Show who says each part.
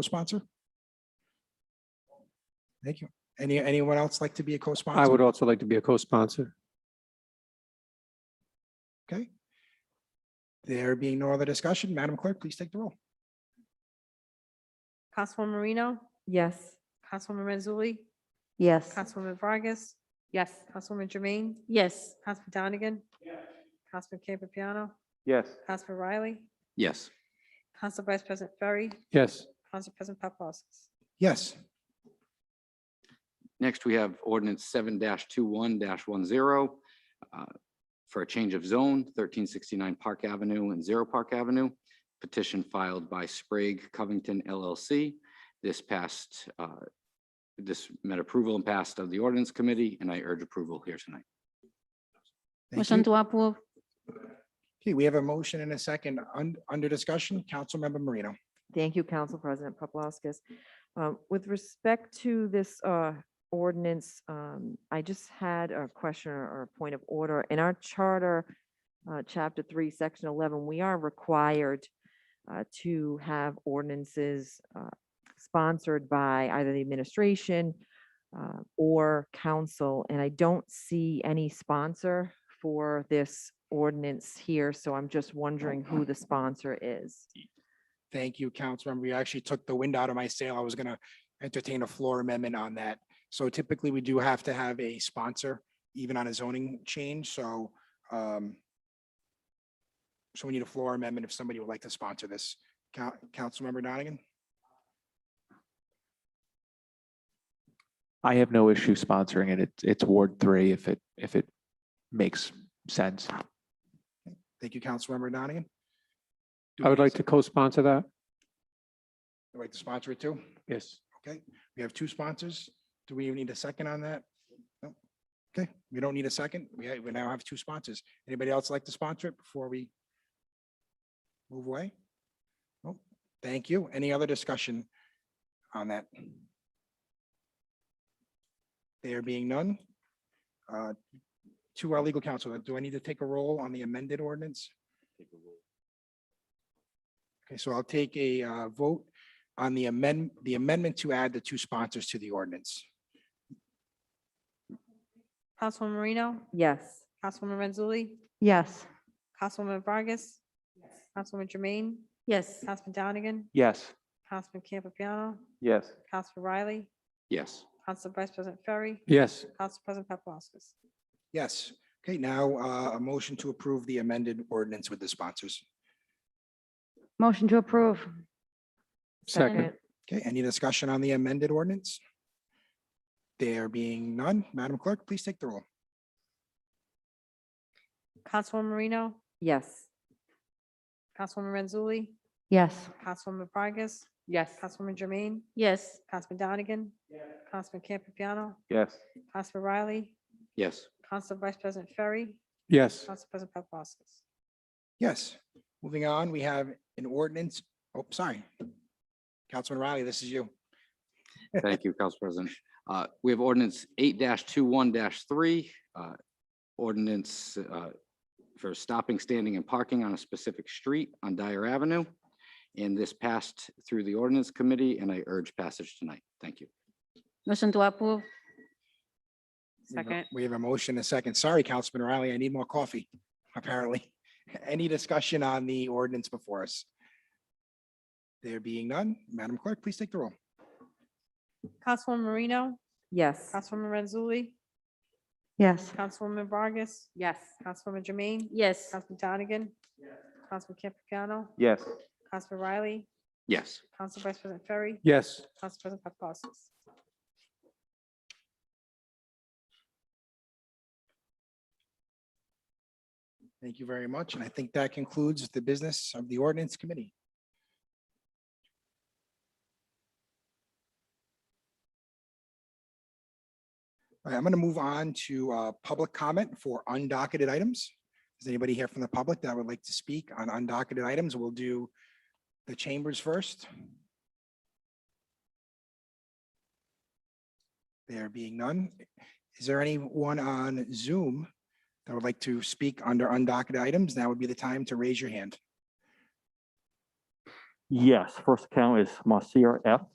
Speaker 1: co-sponsor? Thank you. Any, anyone else like to be a co-sponsor?
Speaker 2: I would also like to be a co-sponsor.
Speaker 1: Okay. There being no other discussion, Madam Clerk, please take the roll.
Speaker 3: Councilwoman Marino,
Speaker 4: Yes.
Speaker 3: Councilwoman Mazzulli,
Speaker 4: Yes.
Speaker 3: Councilwoman Vargas,
Speaker 4: Yes.
Speaker 3: Councilwoman Jermaine,
Speaker 4: Yes.
Speaker 3: Councilman Donegan, Councilman Campiano,
Speaker 2: Yes.
Speaker 3: Councilman Riley,
Speaker 5: Yes.
Speaker 3: Council Vice President Ferry,
Speaker 2: Yes,
Speaker 3: Council President Paplaskas.
Speaker 1: Yes,
Speaker 5: Next, we have ordinance seven 21 one zero uh, for a change of zone, thirteen sixty-nine Park Avenue and Zero Park Avenue. Petition filed by Sprague Covington LLC. This passed, uh, this met approval and passed of the ordinance committee, and I urge approval here tonight.
Speaker 1: thank
Speaker 4: Motion
Speaker 1: you.
Speaker 4: to approve.
Speaker 1: Okay, we have a motion and a second un- under discussion. Councilmember Marino.
Speaker 6: Thank you, Council President Paplaskas. Um, With respect to this uh, ordinance, um, I just had a question or or a point of order. In our charter, uh, Chapter 3, Section 11, we are required uh, to have ordinances uh, sponsored by either the administration uh, or council, and I don't see any sponsor for this ordinance here, so I'm just wondering who the sponsor is.
Speaker 1: Thank you, Councilmember. You actually took the wind out of my sail. I was going to entertain a floor amendment on that. So typically, we do have to have a sponsor, even on a zoning change, so um, so we need a floor amendment if somebody would like to sponsor this. Coun- Councilmember Donegan?
Speaker 7: I have no issue sponsoring it. It's, it's Ward three if it, if it makes sense.
Speaker 1: Thank you, Councilmember Donegan. Do
Speaker 2: I would
Speaker 1: we-
Speaker 2: like to co-sponsor that.
Speaker 1: I'd like to sponsor it too.
Speaker 2: Yes.
Speaker 1: Okay, we have two sponsors. Do we even need a second on that? No. Okay, we don't need a second. We, ha- we now have two sponsors. Anybody else like to sponsor it before we move away? No, thank you. Any other discussion on that? There being none. uh, To our legal counsel, do I need to take a roll on the amended ordinance? Okay, so I'll take a uh, vote on the amend, the amendment to add the two sponsors to the ordinance.
Speaker 3: Councilwoman Marino,
Speaker 6: Yes.
Speaker 3: Councilwoman Mazzulli,
Speaker 4: Yes.
Speaker 3: Councilwoman Vargas, Councilwoman Jermaine,
Speaker 4: Yes.
Speaker 3: Councilman Donegan,
Speaker 2: Yes.
Speaker 3: Councilman Campiano,
Speaker 2: Yes.
Speaker 3: Councilman Riley,
Speaker 5: Yes.
Speaker 3: Council Vice President Ferry,
Speaker 2: Yes,
Speaker 3: Council President Paplaskas.
Speaker 1: Yes. Okay, now uh, a motion to approve the amended ordinance with the sponsors.
Speaker 4: Motion to approve.
Speaker 2: second.
Speaker 1: Okay, any discussion on the amended ordinance? There being none, Madam Clerk, please take the roll.
Speaker 3: Councilwoman Marino,
Speaker 6: Yes.
Speaker 3: Councilwoman Mazzulli,
Speaker 4: Yes.
Speaker 3: Councilwoman Vargas,
Speaker 4: Yes.
Speaker 3: Councilwoman Jermaine,
Speaker 4: Yes.
Speaker 3: Councilman Donegan, Councilman Campiano,
Speaker 2: Yes.
Speaker 3: Councilman Riley,
Speaker 5: Yes.
Speaker 3: Council Vice President Ferry,
Speaker 2: Yes,
Speaker 3: Council President Paplaskas.
Speaker 1: Yes, moving on, we have an ordinance, oh, sorry. Councilman Riley, this is you.
Speaker 5: Thank you, Council President. Uh, We have ordinance eight 21 three. uh, Ordinance uh, for stopping, standing and parking on a specific street on Dyer Avenue. And this passed through the ordinance committee and I urge passage tonight. Thank you.
Speaker 4: Motion to approve.
Speaker 1: We have a- We have a motion, and a second. Sorry, Councilman Riley, I need more coffee, apparently. Any discussion on the ordinance before us? There being none, Madam Clerk, please take the roll.
Speaker 3: Councilwoman Marino,
Speaker 6: Yes.
Speaker 3: Councilwoman Renzulli,
Speaker 4: Yes.
Speaker 3: Councilwoman Vargas,
Speaker 4: Yes.
Speaker 3: Councilwoman Jermaine,
Speaker 4: Yes.
Speaker 3: Councilman Donegan, Councilman Campiano,
Speaker 2: Yes.
Speaker 3: Councilman Riley,
Speaker 5: Yes.
Speaker 3: Council Vice President Ferry,
Speaker 2: yes.
Speaker 3: Council President Paplaskas.
Speaker 1: Thank you very much, and I think that concludes the business of the ordinance committee. All right, I'm going to move on to uh, public comment for undocketed items. Is anybody here from the public that would like to speak on undocketed items? We'll do the chambers first. There being none, is there anyone on Zoom that would like to speak under undocketed items, now would be the time to raise your hand.
Speaker 8: Yes, first account is Marcia F.